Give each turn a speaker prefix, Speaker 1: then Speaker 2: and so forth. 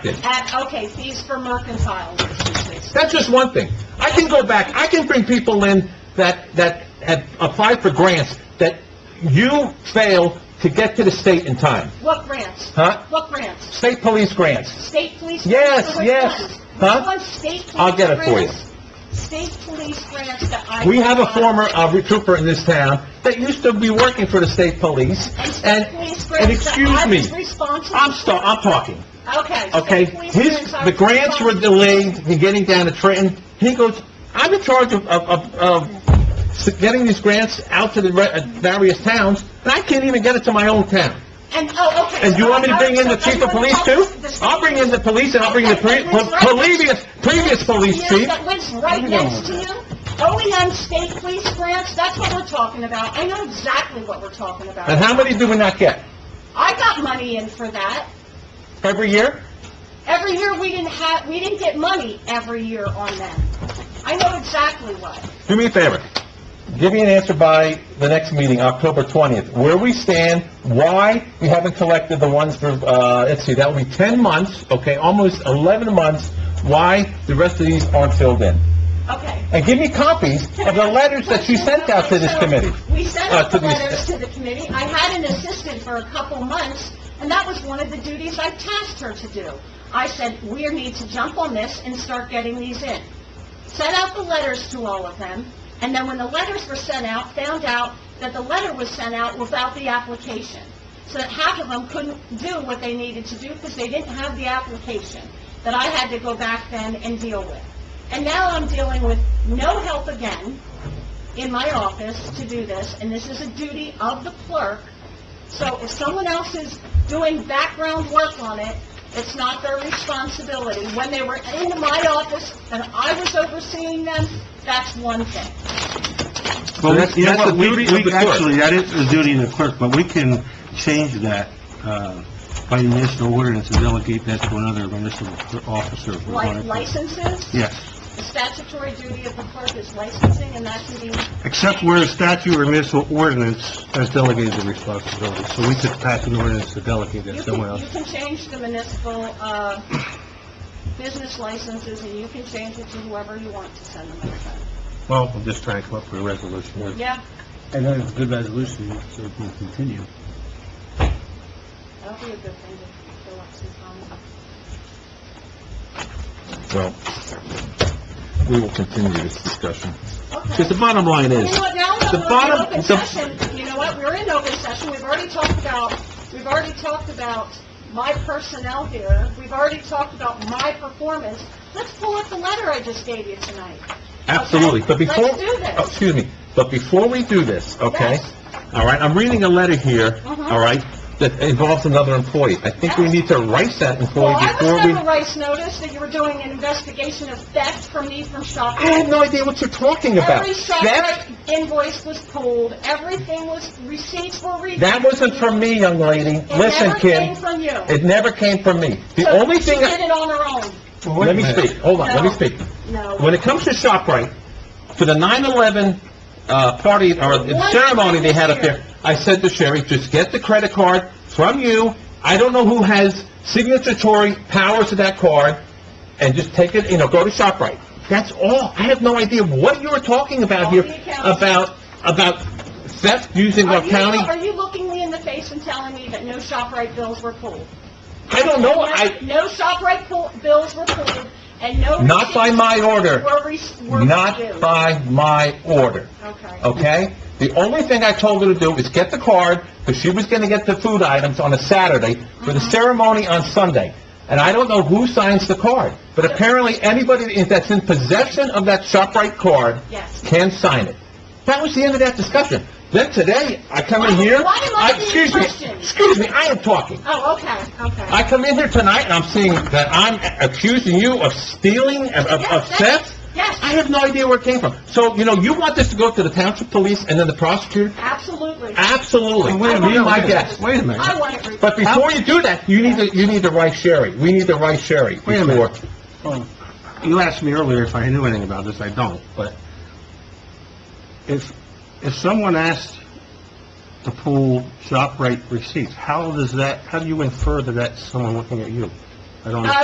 Speaker 1: At, okay, fees for mercantile licenses.
Speaker 2: That's just one thing. I can go back, I can bring people in that, that have applied for grants that you failed to get to the state in time,
Speaker 1: What grants?
Speaker 2: huh?
Speaker 1: What grants?
Speaker 2: State police grants.
Speaker 1: State police?
Speaker 2: Yes,
Speaker 1: grants? Which
Speaker 2: yes.
Speaker 1: ones?
Speaker 2: Huh?
Speaker 1: Which ones? State police
Speaker 2: I'll get it for you.
Speaker 1: grants? State police grants that I...
Speaker 2: We have a former uh, trooper in this town that used to be working for the state police, and, and excuse me, I'm sta, I'm talking,
Speaker 1: Okay. state
Speaker 2: okay?
Speaker 1: police
Speaker 2: His,
Speaker 1: grants I
Speaker 2: the
Speaker 1: was
Speaker 2: grants were
Speaker 1: responsible-
Speaker 2: delayed in getting down to Trenton. He goes, "I'm in charge of, of, of- of getting these grants out to the re- uh, various towns, and I can't even get it to my own town."
Speaker 1: And, oh, okay.
Speaker 2: And you want me to bring in the
Speaker 1: so
Speaker 2: chief of
Speaker 1: everyone
Speaker 2: police too?
Speaker 1: else- the state
Speaker 2: I'll bring in the
Speaker 1: police
Speaker 2: police and I'll bring the pre- po- previous, previous police chief.
Speaker 1: That lives right next to you? OEM state police grants, that's what we're talking about. I know exactly what we're talking
Speaker 2: And
Speaker 1: about.
Speaker 2: how many do we not get?
Speaker 1: I got money in for that.
Speaker 2: Every year?
Speaker 1: Every year, we didn't have, we didn't get money every year on them. I know exactly what.
Speaker 2: Do me a favor. Give me an answer by the next meeting, October 20th, where we stand, why we haven't collected the ones for, uh, let's see, that would be 10 months, okay, almost 11 months, why the rest of these aren't filled in.
Speaker 1: Okay.
Speaker 2: And give me copies of the letters that you sent out to this committee.
Speaker 1: We sent
Speaker 2: Uh,
Speaker 1: out
Speaker 2: to
Speaker 1: the
Speaker 2: these-
Speaker 1: letters to the committee. I had an assistant for a couple months, and that was one of the duties I tasked her to do. I said, "We need to jump on this and start getting these in." Sent out the letters to all of them, and then when the letters were sent out, found out that the letter was sent out without the application. So that half of them couldn't do what they needed to do because they didn't have the application that I had to go back then and deal with. And now I'm dealing with no help again in my office to do this, and this is a duty of the clerk. So if someone else is doing background work on it, it's not their responsibility. When they were in my office and I was overseeing them, that's one thing.
Speaker 2: So that's-
Speaker 3: You know
Speaker 2: that's
Speaker 3: what,
Speaker 2: the
Speaker 3: we-
Speaker 2: duty of
Speaker 3: we
Speaker 2: the clerk.
Speaker 3: Actually, that is the duty of the clerk, but we can change that uh, by municipal ordinance and delegate that to another municipal cl- officer. if we
Speaker 1: Like
Speaker 3: want to.
Speaker 1: licenses,
Speaker 3: Yes,
Speaker 1: the statutory duty of the clerk is licensing, and that can be,
Speaker 3: except where a statute or municipal ordinance has delegated the responsibility, so we could pass an ordinance to delegate
Speaker 1: you
Speaker 3: that somewhere
Speaker 1: can, you
Speaker 3: else.
Speaker 1: can change the municipal, uh, business licenses, and you can change it to whoever you want to send them out
Speaker 3: Well, I'm just trying to come up with a resolution.
Speaker 1: to. Yeah,
Speaker 3: And then it's a good resolution, so we can continue.
Speaker 1: that'll be a good thing to fill up some time.
Speaker 2: Well, we will continue this discussion.
Speaker 1: Okay.
Speaker 2: Because the bottom line
Speaker 1: You
Speaker 2: is,
Speaker 1: know what, now
Speaker 2: The
Speaker 1: that we're in
Speaker 2: bottom-
Speaker 1: open
Speaker 2: the-
Speaker 1: session, you know what, we're in open session, we've already talked about, we've already talked about my personnel here, we've already talked about my performance, let's pull up the letter I just gave you tonight.
Speaker 2: Absolutely, but
Speaker 1: Okay,
Speaker 2: before...
Speaker 1: let's do this.
Speaker 2: oh, Excuse me, but before we do this, okay?
Speaker 1: Yes.
Speaker 2: All right, I'm reading a letter here,
Speaker 1: Mhm.
Speaker 2: all right, that involves another employee. I think we
Speaker 1: Yes.
Speaker 2: need to write that employee
Speaker 1: Well, I was
Speaker 2: before we...
Speaker 1: sent a rice notice that you were doing an investigation of theft from me from
Speaker 2: I have
Speaker 1: shopping.
Speaker 2: no idea what you're talking about.
Speaker 1: Every
Speaker 2: That,
Speaker 1: separate invoice was pulled, everything was, receipts were reviewed.
Speaker 2: that wasn't from me, young lady.
Speaker 1: It
Speaker 2: Listen,
Speaker 1: never came
Speaker 2: Kim,
Speaker 1: from you.
Speaker 2: it never came from me. The
Speaker 1: So
Speaker 2: only thing,
Speaker 1: She did
Speaker 2: I-
Speaker 1: it on her own.
Speaker 2: let me speak, hold on, let me
Speaker 1: No.
Speaker 2: speak.
Speaker 1: No.
Speaker 2: When it comes to ShopRite, for the 9/11 uh, party or the
Speaker 1: One
Speaker 2: ceremony they had up
Speaker 1: credit
Speaker 2: there, I said to Sherry, just get the credit card from you. I don't know who has signatory powers to that card, and just take it, you know, go to ShopRite. That's all. I have no idea what you're talking about here,
Speaker 1: Call the accountant.
Speaker 2: about, about theft using our
Speaker 1: Are you,
Speaker 2: county.
Speaker 1: are you looking me in the face and telling me that no ShopRite bills were pulled?
Speaker 2: I don't know, I,
Speaker 1: No ShopRite pull- bills were pulled, and no...
Speaker 2: Not by my order.
Speaker 1: Were res- were
Speaker 2: not
Speaker 1: reviewed.
Speaker 2: by my order.
Speaker 1: Okay.
Speaker 2: okay? The only thing I told her to do is get the card, because she was gonna get the food items on a Saturday for the
Speaker 1: Mm-hmm.
Speaker 2: ceremony on Sunday. And I don't know who signs the card, but apparently anybody that's in possession of that ShopRite card
Speaker 1: Yes.
Speaker 2: can sign it. That was the end of that discussion. Then today, I come in here...
Speaker 1: Why am I being
Speaker 2: excuse me,
Speaker 1: questioned?
Speaker 2: Excuse me, I am talking.
Speaker 1: Oh, okay, okay.
Speaker 2: I come in here tonight and I'm seeing that I'm accusing you of stealing, of, of- of
Speaker 1: Yes, that's-
Speaker 2: theft? I
Speaker 1: Yes,
Speaker 2: have no idea where it came from. So, you know, you want this to go to the township police and then the prosecutor?
Speaker 1: absolutely.
Speaker 2: Absolutely.
Speaker 3: Wait a
Speaker 2: Be
Speaker 3: minute,
Speaker 2: my
Speaker 3: wait a minute,
Speaker 2: guest.
Speaker 3: wait a minute.
Speaker 1: I want it reviewed.
Speaker 2: But before you do that, you need to, you need to write Sherry. We need to write Sherry
Speaker 3: Wait a
Speaker 2: before.
Speaker 3: minute. Oh, You asked me earlier if I knew anything about this, I don't, but if, if someone asked to pull ShopRite receipts, how does that, how do you infer that that's someone looking at you? I don't
Speaker 1: Uh,